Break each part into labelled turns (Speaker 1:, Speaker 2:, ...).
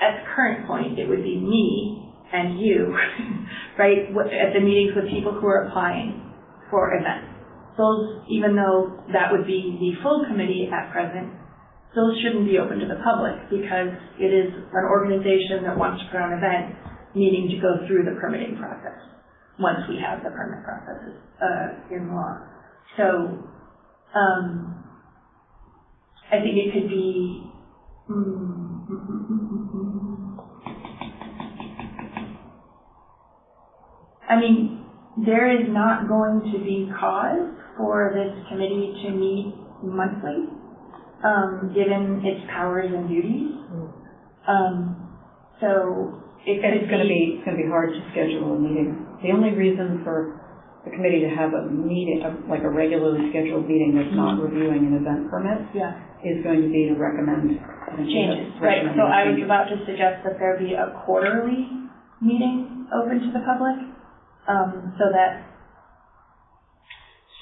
Speaker 1: at the current point, it would be me and you, right, wh- at the meetings with people who are applying for events. Those, even though that would be the full committee at present, those shouldn't be open to the public because it is an organization that wants to put on an event needing to go through the permitting process once we have the permit processes, uh, in law. So, um, I think it could be, mm, mm, mm, mm, mm, mm. I mean, there is not going to be cause for this committee to meet monthly, um, given its powers and duties. Um, so it could
Speaker 2: Mm. It's gonna be, it's gonna be hard to schedule a meeting. The only reason for the committee to have a meeting, a- like a regularly scheduled meeting that's not
Speaker 1: Mm-hmm.
Speaker 2: reviewing an event permit
Speaker 1: Yeah.
Speaker 2: is going to be to recommend.
Speaker 1: changes, right,
Speaker 2: recommend
Speaker 1: so I was
Speaker 2: changes.
Speaker 1: about to suggest that there be a quarterly meeting open to the public, um, so that,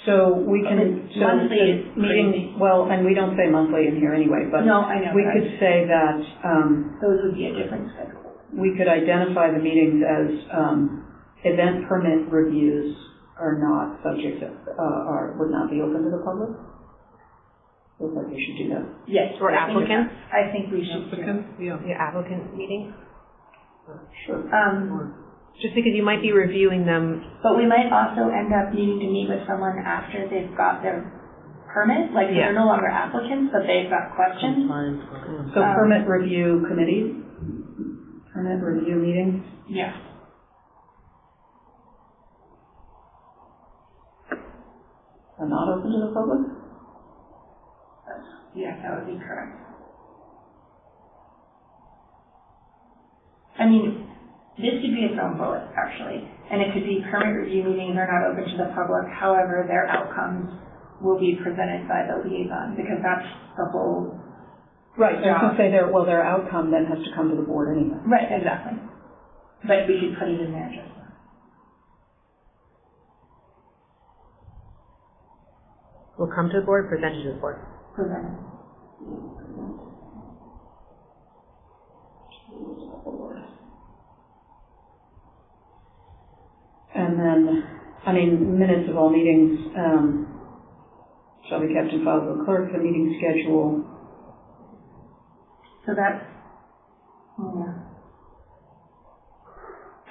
Speaker 2: So we can, so.
Speaker 1: Monthly is
Speaker 2: the meeting. Well, and we don't say monthly in here anyway, but
Speaker 1: no, I know,
Speaker 2: we
Speaker 1: but
Speaker 2: could say that, um,
Speaker 1: those would be a different schedule.
Speaker 2: we could identify the meetings as um, event permit reviews are not subject to, uh, are, would not be open to the public? Looks like we should do that.
Speaker 1: Yes.
Speaker 3: Or
Speaker 1: I think-
Speaker 3: applicants?
Speaker 1: I think we should, do-
Speaker 4: Applicants, yeah.
Speaker 3: Your applicant meeting?
Speaker 2: Sure.
Speaker 1: um,
Speaker 3: Just because you might be reviewing them,
Speaker 1: but we might also end up needing to meet with someone after they've got their permit, like,
Speaker 3: Yeah.
Speaker 1: they're no longer applicants, but they've got questions,
Speaker 2: So permit review committee, permit review meetings,
Speaker 1: yeah.
Speaker 2: are not open to the public?
Speaker 1: Yeah, that would be correct. I mean, this could be its own bullet, actually, and it could be permit review meetings are not open to the public, however, their outcomes will be presented by the liaison, because that's the whole.
Speaker 2: Right, I was gonna say their, well, their outcome then has to come to the board anyway.
Speaker 1: Right, exactly. But we could put it in there just.
Speaker 3: will come to the board, present it to the board.
Speaker 1: presented.
Speaker 2: And then, I mean, minutes of all meetings, um, shall be kept and filed with the clerk, the meeting schedule,
Speaker 1: So that's, yeah.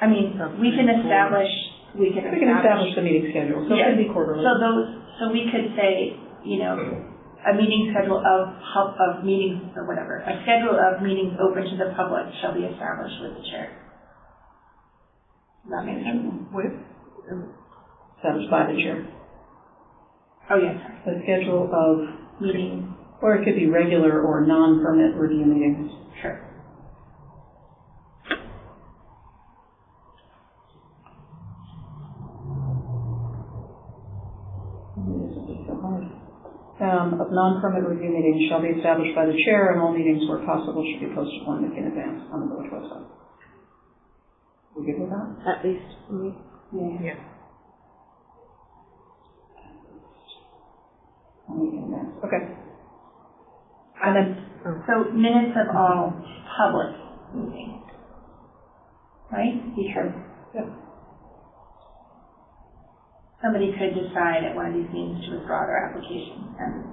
Speaker 1: I mean, we can establish, we can establish.
Speaker 2: We can establish the meeting schedule, so it can be quarterly.
Speaker 1: So those, so we could say, you know, a meeting schedule of, pub- of meetings, or whatever, a schedule of meetings open to the public shall be established with the chair. Does that make sense?
Speaker 4: With?
Speaker 2: Established by the chair.
Speaker 1: Oh, yes, sorry.
Speaker 2: A schedule of,
Speaker 1: meeting,
Speaker 2: or it could be regular or non-permit review meetings.
Speaker 1: sure.
Speaker 2: This would be so hard. Um, of non-permit review meetings shall be established by the chair, and all meetings where possible should be posted one week in advance on the village website. We good with that?
Speaker 3: At least, mm,
Speaker 1: Yeah.
Speaker 2: One week in advance, okay. And then,
Speaker 1: So minutes of all public meetings, right? Because
Speaker 2: Yep.
Speaker 1: somebody could decide at one of these meetings to withdraw their application, and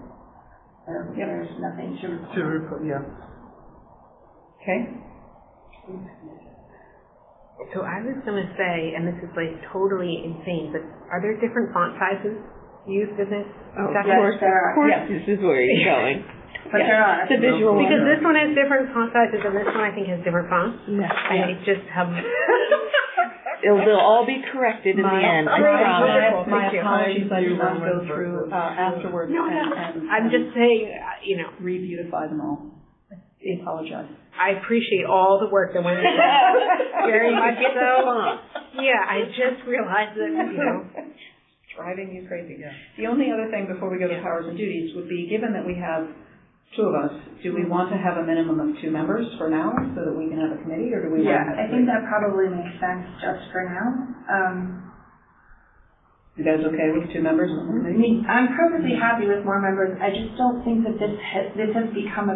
Speaker 1: there- there's nothing to
Speaker 4: To report, yeah.
Speaker 2: okay,
Speaker 3: So I was gonna say, and this is like totally insane, but are there different font sizes used for this?
Speaker 4: Oh,
Speaker 3: exact
Speaker 1: Yes,
Speaker 3: word?
Speaker 1: there
Speaker 4: Of
Speaker 1: are,
Speaker 4: course,
Speaker 2: Yeah.
Speaker 4: this is where you're going.
Speaker 1: but there are.
Speaker 2: the visual one.
Speaker 3: Because this one has different font sizes and this one I think has different fonts.
Speaker 4: Yeah.
Speaker 3: I just have.
Speaker 4: It'll, they'll all be corrected in the
Speaker 2: My-
Speaker 4: end, I
Speaker 2: my-
Speaker 4: promise.
Speaker 2: My
Speaker 3: Thank you.
Speaker 2: apologies, I did not
Speaker 4: Thank you.
Speaker 2: go through, uh, afterwards
Speaker 3: No, no,
Speaker 2: and, and.
Speaker 3: I'm just saying, uh, you know,
Speaker 2: Re-beautify them all. I apologize.
Speaker 3: I appreciate all the work that went into it. Very much
Speaker 4: Get the
Speaker 3: so.
Speaker 4: font.
Speaker 3: Yeah, I just realized that, you know,
Speaker 2: driving you crazy. The only other thing before we go to powers and duties would be, given that we have two of us, do we want to have a minimum of two members for now so that we can have a committee, or do we
Speaker 1: Yeah,
Speaker 2: want to have
Speaker 1: I think that probably makes sense just for now. Um,
Speaker 2: You guys okay with two members on the
Speaker 1: I
Speaker 2: committee?
Speaker 1: mean, I'm perfectly happy with more members, I just don't think that this has, this has become a